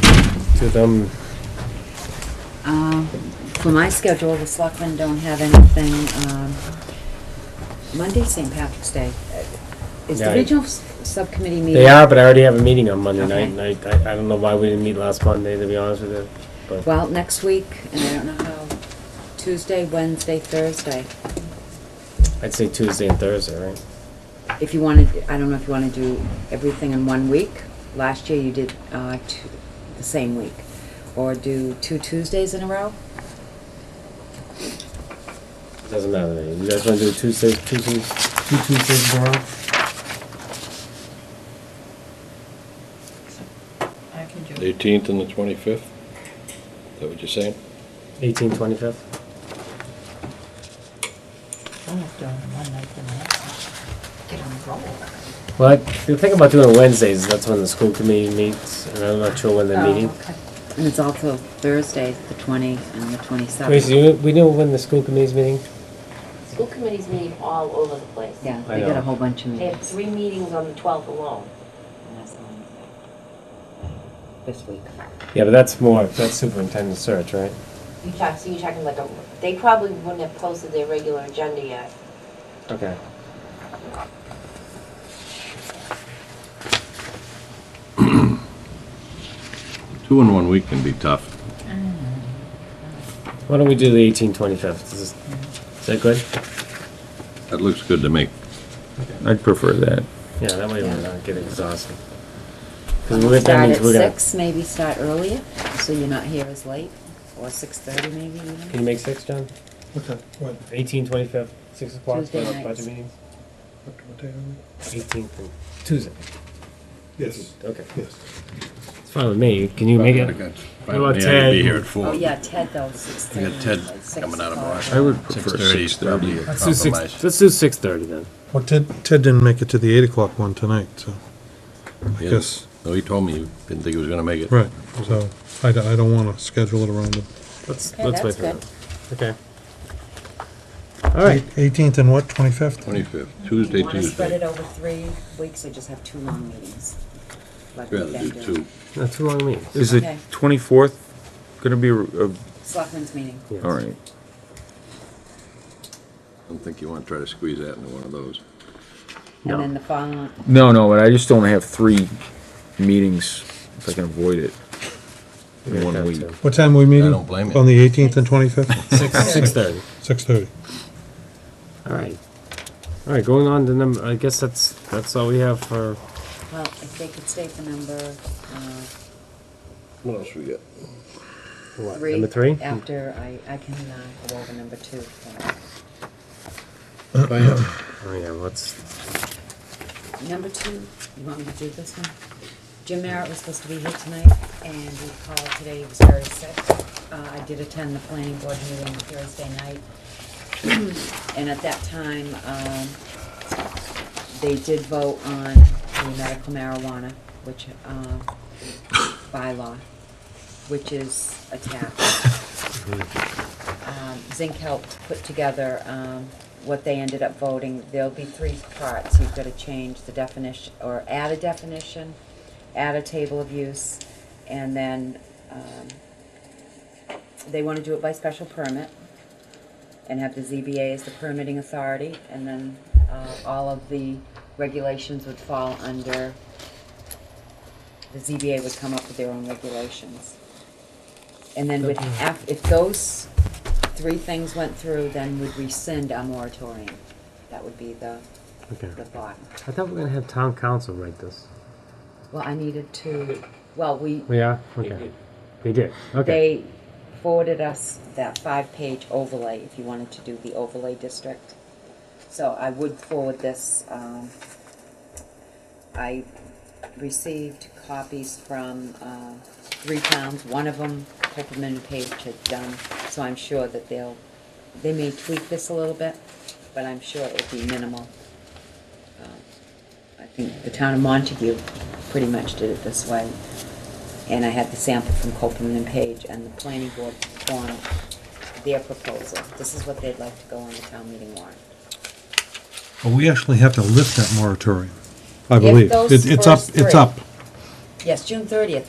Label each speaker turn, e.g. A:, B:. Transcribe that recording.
A: to them?
B: Um, For my schedule, the selectmen don't have anything. um, Monday, St. Patrick's Day. Is
A: Yeah,
B: the
A: I-
B: regional s- subcommittee meeting?
A: They are, but I already have a meeting on Monday night,
B: Okay.
A: and I, I- I don't know why we didn't meet last Monday, to be honest with you. But
B: Well, next week, and I don't know how, Tuesday, Wednesday, Thursday.
A: I'd say Tuesday and Thursday, right?
B: If you wanted, I don't know if you want to do everything in one week. Last year, you did uh, two- the same week. Or do two Tuesdays in a row?
A: Doesn't matter to me. You guys wanna do Tuesday, Tuesday, two Tuesdays in a row?
C: I can do it.
D: Eighteenth and the twenty-fifth? Is that what you're saying?
A: Eighteen, twenty-fifth?
C: I'm not doing one night the next. Get on the roll.
A: Well, I- the thing about doing Wednesdays, is that's when the school committee meets, and I'm not sure when
B: Oh,
A: they're meeting.
B: And it's also Thursdays, the 20 and the 27th.
A: Wait, so you, we know when the school committee's meeting?
E: School committees meet all over the place.
B: Yeah,
A: I
B: they got
A: know.
B: a whole bunch of
E: They have
B: meetings.
E: three meetings on the 12th alone.
B: This week.
A: Yeah, but that's more, that's superintendent search, right?
E: You talk, so you're talking like a, they probably wouldn't have posted their regular agenda yet.
A: Okay.
D: Two in one week can be tough.
A: Why don't we do the eighteen, twenty-fifth? Is is that good?
D: That looks good to me.
F: I'd prefer that.
A: Yeah, that way we're not getting exhausted. Because that
B: Start
A: means
B: at
A: we're gonna,
B: six, maybe start earlier, so you're not here as late, or six thirty maybe
A: can
B: even.
A: you make six, John?
G: Okay, what,
A: Eighteen, twenty-fifth, six o'clock,
B: Tuesday
A: budget
B: nights.
A: meetings?
G: what what day are we?
A: Eighteenth and Tuesday.
G: Yes,
A: Okay.
G: yes.
A: It's fine with me. Can you make
D: I
A: it?
D: got-
A: How about
D: I gotta Be
A: Ted?
D: here at four.
B: Oh, yeah, Ted though, six
D: I
B: thirty.
D: got Ted coming out of Boston.
F: I would prefer
D: 6:30 is
F: 6:30.
D: probably a
A: Let's do six,
D: compromise.
A: let's do six thirty then.
G: Well, Ted, Ted didn't make it to the eight o'clock one tonight, so, I
D: Yeah.
G: guess,
D: No, he told me you didn't think he was gonna make it.
G: right, so, I don't, I don't wanna schedule it around him.
A: Let's,
B: Okay,
A: let's wait
B: that's
A: for
B: good.
A: that. Okay. All right.
G: Eighteenth and what, twenty-fifth?
D: Twenty-fifth, Tuesday,
B: Want to spread it
D: Tuesday.
B: over three weeks or just have two long meetings? like
D: I'd
B: we've
D: Rather
B: been
D: do
B: doing?
D: two.
A: That's who I mean.
F: Is
B: Okay.
F: the twenty-fourth gonna be, a- a-
B: Selectmen's meeting.
F: all right.
D: I don't think you wanna try to squeeze that into one of those.
A: No.
B: And then the following,
F: No, no, but I just don't have three meetings if I can avoid it in one week.
G: What time are we meeting?
D: don't blame you.
G: On the eighteenth and twenty-fifth?
A: Six, Oh, six thirty.
G: Six-thirty.
A: All right. All right, going on to number, I guess that's, that's all we have for,
B: well, if they could stay for number, uh,
D: What else we got?
A: what,
B: three.
A: number three?
B: After I, I can, uh, go over number two.
A: Oh, yeah, what's,
B: Number two, you want me to do this one? Jim Merritt was supposed to be here tonight, and he called today, he was very sick. Uh, I did attend the planning board meeting Thursday night. And at that time, um, they did vote on the medical marijuana, which, um, bylaw, which is attached. Um, Zink helped put together, um, what they ended up voting. There'll be three parts. You've gotta change the definition, or add a definition, add a table of use, and then, um, they wanna do it by special permit and have the ZBA as the permitting authority, and then, uh, all of the regulations would fall under, the ZBA would come up with their own regulations. And then would, af- if those three things went through, then would rescind our moratorium. That would be the,
A: okay.
B: the thought.
A: I thought we were gonna have town council write this.
B: Well, I needed to, well, we,
A: Yeah, okay. They did, okay.
B: they forwarded us that five-page overlay, if you wanted to do the overlay district. So I would forward this, um, I received copies from, uh, three towns, one of them, Peppermint and Page had done, so I'm sure that they'll, they may tweak this a little bit, but I'm sure it'll be minimal. Um, I think the town of Montague pretty much did it this way, and I had the sample from Copeland and Page, and the planning board formed their proposal. This is what they'd like to go on the town meeting warrant.
G: Well, we actually have to lift that moratorium, I believe.
B: those
G: It- It's up,
B: first
G: it's
B: three-
G: up.
B: Yes, June thirtieth,